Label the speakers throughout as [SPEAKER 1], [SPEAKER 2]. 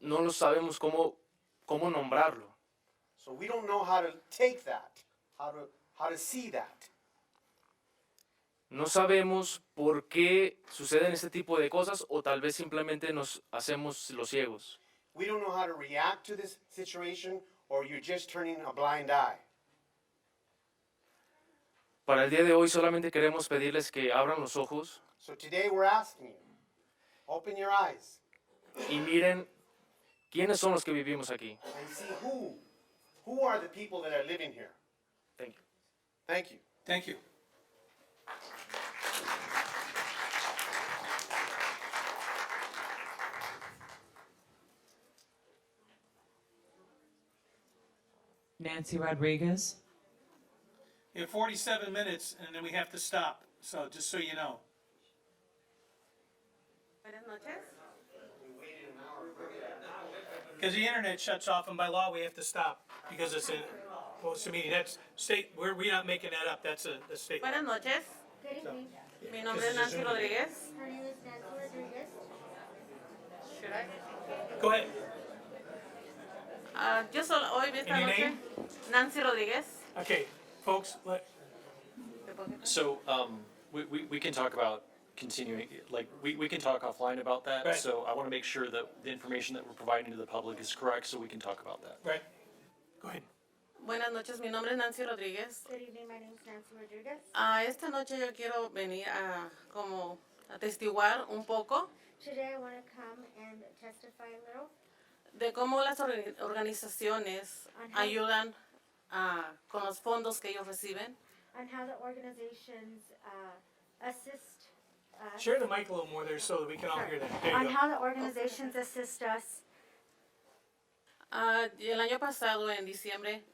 [SPEAKER 1] no lo sabemos cómo, cómo nombrarlo.
[SPEAKER 2] So we don't know how to take that, how to how to see that.
[SPEAKER 1] No sabemos por qué suceden este tipo de cosas o tal vez simplemente nos hacemos los ciegos.
[SPEAKER 2] We don't know how to react to this situation or you're just turning a blind eye.
[SPEAKER 1] Para el día de hoy solamente queremos pedirles que abran los ojos
[SPEAKER 2] So today we're asking you, open your eyes
[SPEAKER 1] y miren quiénes son los que vivimos aquí.
[SPEAKER 2] and see who who are the people that are living here.
[SPEAKER 1] Thank you.
[SPEAKER 2] Thank you.
[SPEAKER 3] Thank you.
[SPEAKER 4] Nancy Rodriguez,
[SPEAKER 3] You have 47 minutes, and then we have to stop, so just so you know.
[SPEAKER 5] Buenas noches.
[SPEAKER 3] Because the internet shuts off, and by law, we have to stop, because it's a, well, it's a meeting, that's state, we're, we're not making that up, that's a, a state.
[SPEAKER 5] Buenas noches.
[SPEAKER 6] Good evening.
[SPEAKER 5] Mi nombre es Nancy Rodríguez.
[SPEAKER 6] Her name is Nancy Rodriguez.
[SPEAKER 5] Should I?
[SPEAKER 3] Go ahead,
[SPEAKER 5] Ah, yo solo hoy esta
[SPEAKER 3] And your
[SPEAKER 5] noche.
[SPEAKER 3] name?
[SPEAKER 5] Nancy Rodríguez.
[SPEAKER 3] okay, folks, let,
[SPEAKER 7] So, um, we, we, we can talk about continuing, like, we, we can talk offline about
[SPEAKER 3] Right.
[SPEAKER 7] that. So I want to make sure that the information that we're providing to the public is correct, so we can talk about that.
[SPEAKER 3] right, go ahead.
[SPEAKER 5] Buenas noches. Mi nombre es Nancy Rodríguez.
[SPEAKER 6] Good evening, my name is Nancy Rodriguez.
[SPEAKER 5] Ah, esta noche yo quiero venir a como atestiguar un poco
[SPEAKER 6] Today I want to come and testify a little
[SPEAKER 5] de cómo las orga- organizaciones ayudan ah, con los fondos que ellos reciben.
[SPEAKER 6] on how the organizations uh, assist us.
[SPEAKER 3] Share the mic a little more there, so that we can all hear that, there
[SPEAKER 6] On
[SPEAKER 3] you go.
[SPEAKER 6] how the organizations assist us.
[SPEAKER 5] Ah, y el año pasado, en diciembre,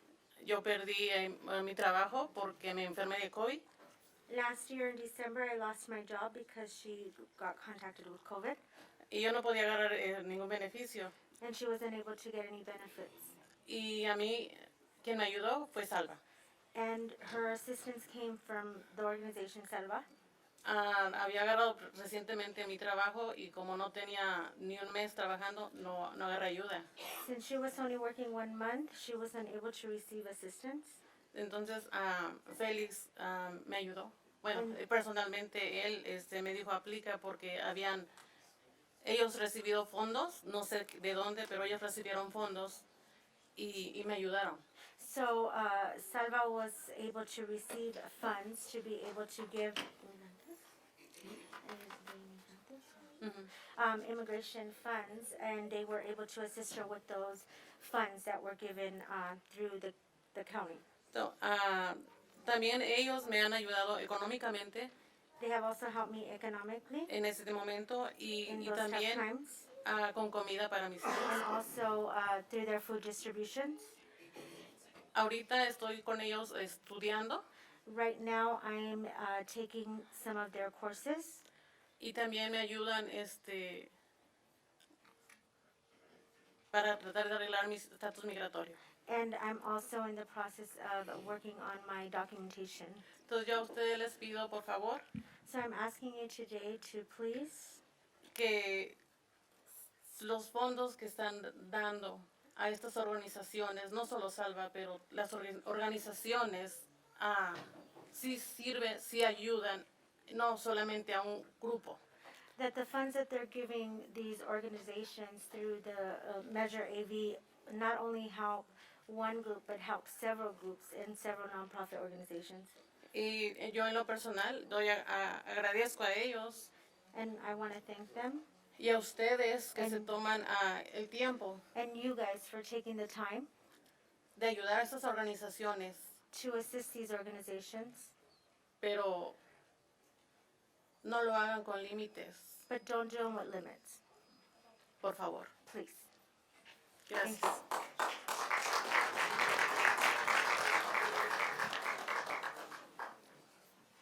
[SPEAKER 5] yo perdí eh, mi trabajo porque me enfermé de COVID.
[SPEAKER 6] Last year in December, I lost my job because she got contacted with COVID
[SPEAKER 5] y yo no podía agarrar eh, ningún beneficio.
[SPEAKER 6] and she wasn't able to get any benefits.
[SPEAKER 5] Y a mí, quien me ayudó fue Salva.
[SPEAKER 6] And her assistance came from the organization Selva.
[SPEAKER 5] Ah, había agarrado recientemente mi trabajo y como no tenía ni un mes trabajando, no, no agarré ayuda.
[SPEAKER 6] Since she was only working one month, she wasn't able to receive assistance.
[SPEAKER 5] Entonces, ah, Félix ah, me ayudó. Bueno, eh, personalmente él este, me dijo aplica porque habían ellos recibido fondos, no sé de dónde, pero ellos recibieron fondos y, y me ayudaron.
[SPEAKER 6] So uh, Salva was able to receive funds to be able to give um, immigration funds, and they were able to assist her with those funds that were given uh, through the, the county.
[SPEAKER 5] To- ah, también ellos me han ayudado económicamente
[SPEAKER 6] They have also helped me economically
[SPEAKER 5] en este momento y,
[SPEAKER 6] in
[SPEAKER 5] y
[SPEAKER 6] those tough
[SPEAKER 5] también
[SPEAKER 6] times,
[SPEAKER 5] ah, con comida para mis hijos.
[SPEAKER 6] and also uh, through their food distributions.
[SPEAKER 5] Ahorita estoy con ellos estudiando
[SPEAKER 6] Right now, I'm uh, taking some of their courses.
[SPEAKER 5] y también me ayudan este para tratar de arreglar mi estatus migratorio.
[SPEAKER 6] And I'm also in the process of working on my documentation.
[SPEAKER 5] Entonces yo a ustedes les pido por favor
[SPEAKER 6] So I'm asking you today to please,
[SPEAKER 5] que los fondos que están dando a estas organizaciones, no solo Salva, pero las orga- organizaciones ah, sí sirven, sí ayudan, no solamente a un grupo.
[SPEAKER 6] that the funds that they're giving these organizations through the uh, Measure AV not only help one group, but help several groups and several nonprofit organizations.
[SPEAKER 5] Y eh, yo en lo personal doy a- a- agradezco a ellos
[SPEAKER 6] And I want to thank them
[SPEAKER 5] y a ustedes que se toman ah, el tiempo
[SPEAKER 6] and you guys for taking the time
[SPEAKER 5] de ayudar a estas organizaciones,
[SPEAKER 6] to assist these organizations,
[SPEAKER 5] pero no lo hagan con límites,
[SPEAKER 6] but don't do them with limits,
[SPEAKER 5] por favor.
[SPEAKER 6] please.
[SPEAKER 5] Gracias.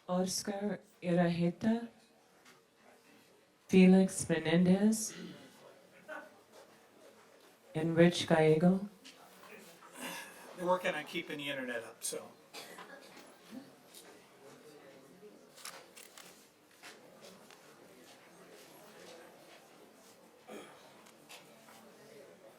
[SPEAKER 4] Oscar Iraheta, Felix Menendez, and Rich Gallego.
[SPEAKER 3] We're working on keeping the internet up, so.